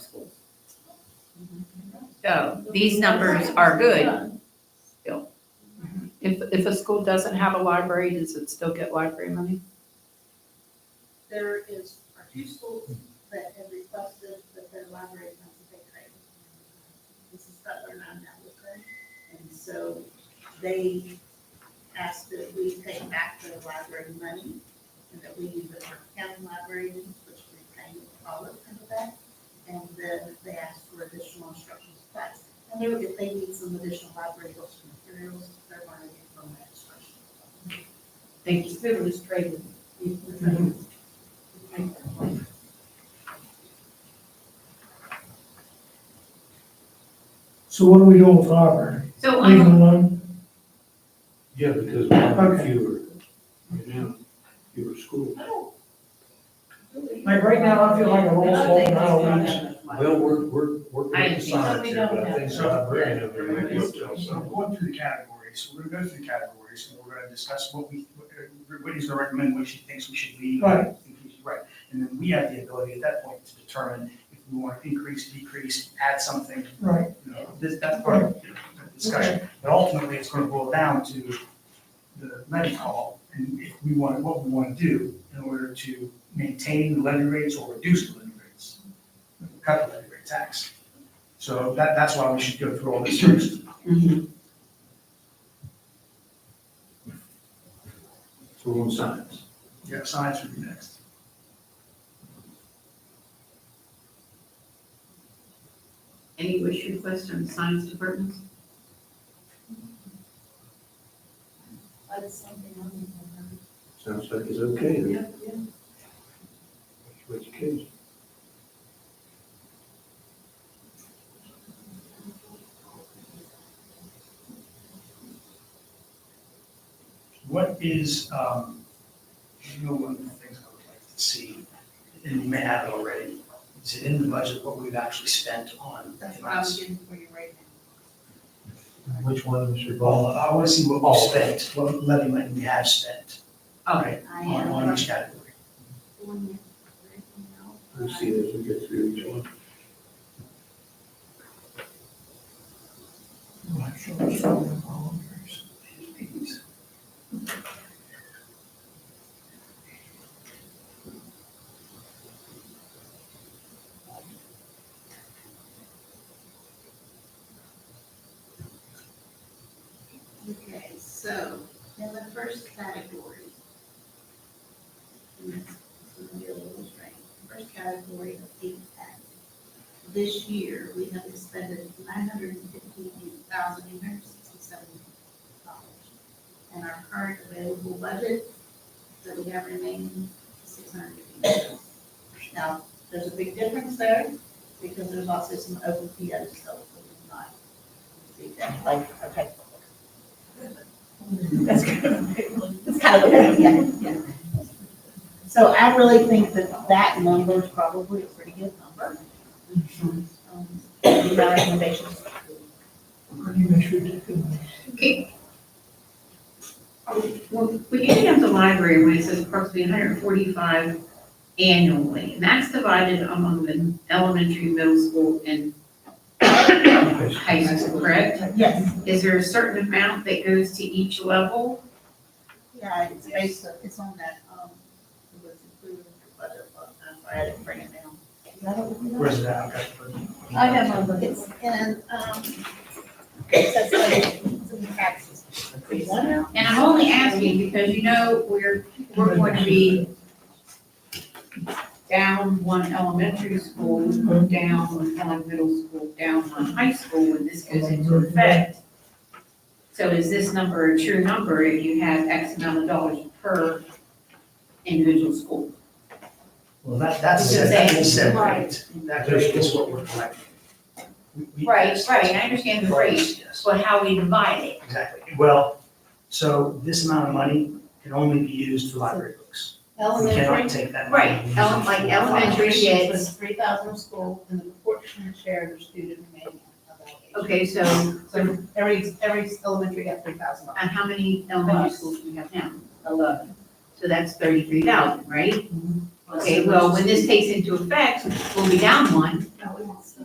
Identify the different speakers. Speaker 1: uh, these numbers are good.
Speaker 2: If, if a school doesn't have a library, does it still get library money?
Speaker 3: There is, are two schools that have requested that their libraries not to pay credit. This is Butler Mountain Albuquerque, and so they asked that we pay back their library money, and that we use it for county libraries, which we pay all of them back, and then they asked for additional instructional supplies. And they would, if they need some additional library books and materials, they're gonna get from that instruction.
Speaker 1: Thank you. Mm-hmm. It was traded.
Speaker 4: So what are we doing with Auburn?
Speaker 1: So
Speaker 4: Leave it
Speaker 1: I'm,
Speaker 4: alone?
Speaker 5: Yeah, because we have
Speaker 4: Okay.
Speaker 5: fewer, right now, fewer schools.
Speaker 4: Like right now, I feel like a roll full of knowledge.
Speaker 5: Well, we're, we're, we're
Speaker 1: I
Speaker 5: going to
Speaker 1: think so.
Speaker 5: science here, but I think
Speaker 6: So-
Speaker 5: something very innovative.
Speaker 6: We're going through the categories, so we're gonna go through the categories, and we're gonna discuss what we, what- uh, Whitney's gonna recommend what she thinks we should leave.
Speaker 4: Right.
Speaker 6: Right, and then we have the ability at that point to determine if we want to increase, decrease, add something,
Speaker 4: Right,
Speaker 6: you know, this, that's part of the discussion. But ultimately, it's gonna boil down to the levy call, and if we want, what we wanna do in order to maintain the levy rates or reduce the levy rates, cut the levy rate tax. So that, that's why we should go through all this first.
Speaker 5: So we're on science.
Speaker 6: Yeah, science would be next.
Speaker 1: any wish requests on science departments?
Speaker 5: Sounds like it's okay. then.
Speaker 1: Yeah, yeah.
Speaker 5: That's what it is.
Speaker 6: What is, um, you know, one of the things I would like to see, and you may have it already, is it in the budget what we've actually spent on
Speaker 3: That's what I'm
Speaker 6: grants?
Speaker 3: getting for you right now.
Speaker 5: Which one is your
Speaker 6: Well,
Speaker 5: ball?
Speaker 6: I want to see what we've spent, what levy money we have spent. Right.
Speaker 3: I
Speaker 6: On,
Speaker 3: am.
Speaker 6: on each category.
Speaker 3: doing it
Speaker 5: Let's
Speaker 3: right
Speaker 5: see as we get through each one.
Speaker 3: now. Okay, so in the first category. and that's- this is gonna be a little strange. First category of eight tax. This year, we have expended nine hundred and fifty-eight thousand eight hundred sixty-seven dollars. And our current available budget that we have remaining is six hundred and fifty. Now, there's a big difference there because there's also some open POs that we not see that, like, okay. That's kind of, that's kind of, yeah, yeah. So I really think that that number is probably a pretty good number. Um, My recommendations.
Speaker 1: Well, when you have the library, when it says approximately hundred and forty-five annually, and that's divided among the elementary, middle school, and high school, correct?
Speaker 3: Yes,
Speaker 1: Is there a certain amount that goes to each level?
Speaker 3: yeah, it's based, on- it's on that, um, it was included in the budget, but I'm sorry, I didn't bring it down.
Speaker 6: Where's it at? Okay.
Speaker 3: I have one, but it's in, um, it says, like, it's in the taxes. One now?
Speaker 1: And I'm only asking because you know, we're, we're going to be down one elementary school, down one middle school, down one high school when this goes into effect. So is this number a true number if you have X amount of dollars per individual school?
Speaker 6: Well, that, that's,
Speaker 1: It's the same.
Speaker 6: that's
Speaker 3: Right.
Speaker 6: separate. That rate is what we're collecting. We- we-
Speaker 1: I understand
Speaker 6: Yes.
Speaker 1: but how we divide it.
Speaker 6: Exactly. Well, so this amount of money can only be used for library books. We
Speaker 3: Elementary
Speaker 6: cannot take that. money
Speaker 1: Right,
Speaker 6: and use it
Speaker 1: ele- like
Speaker 6: for
Speaker 1: elementary
Speaker 6: libraries.
Speaker 3: It
Speaker 1: kids.
Speaker 3: was three thousand school and the proportionate share of the student remaining of that age.
Speaker 1: Okay, so, so-
Speaker 3: So every, every elementary got three thousand dollars.
Speaker 1: and how many elementary schools do we have now? Eleven. So that's thirty-three thousand, right? Okay, well, when this takes into effect, we'll be down one,
Speaker 3: No, we won't.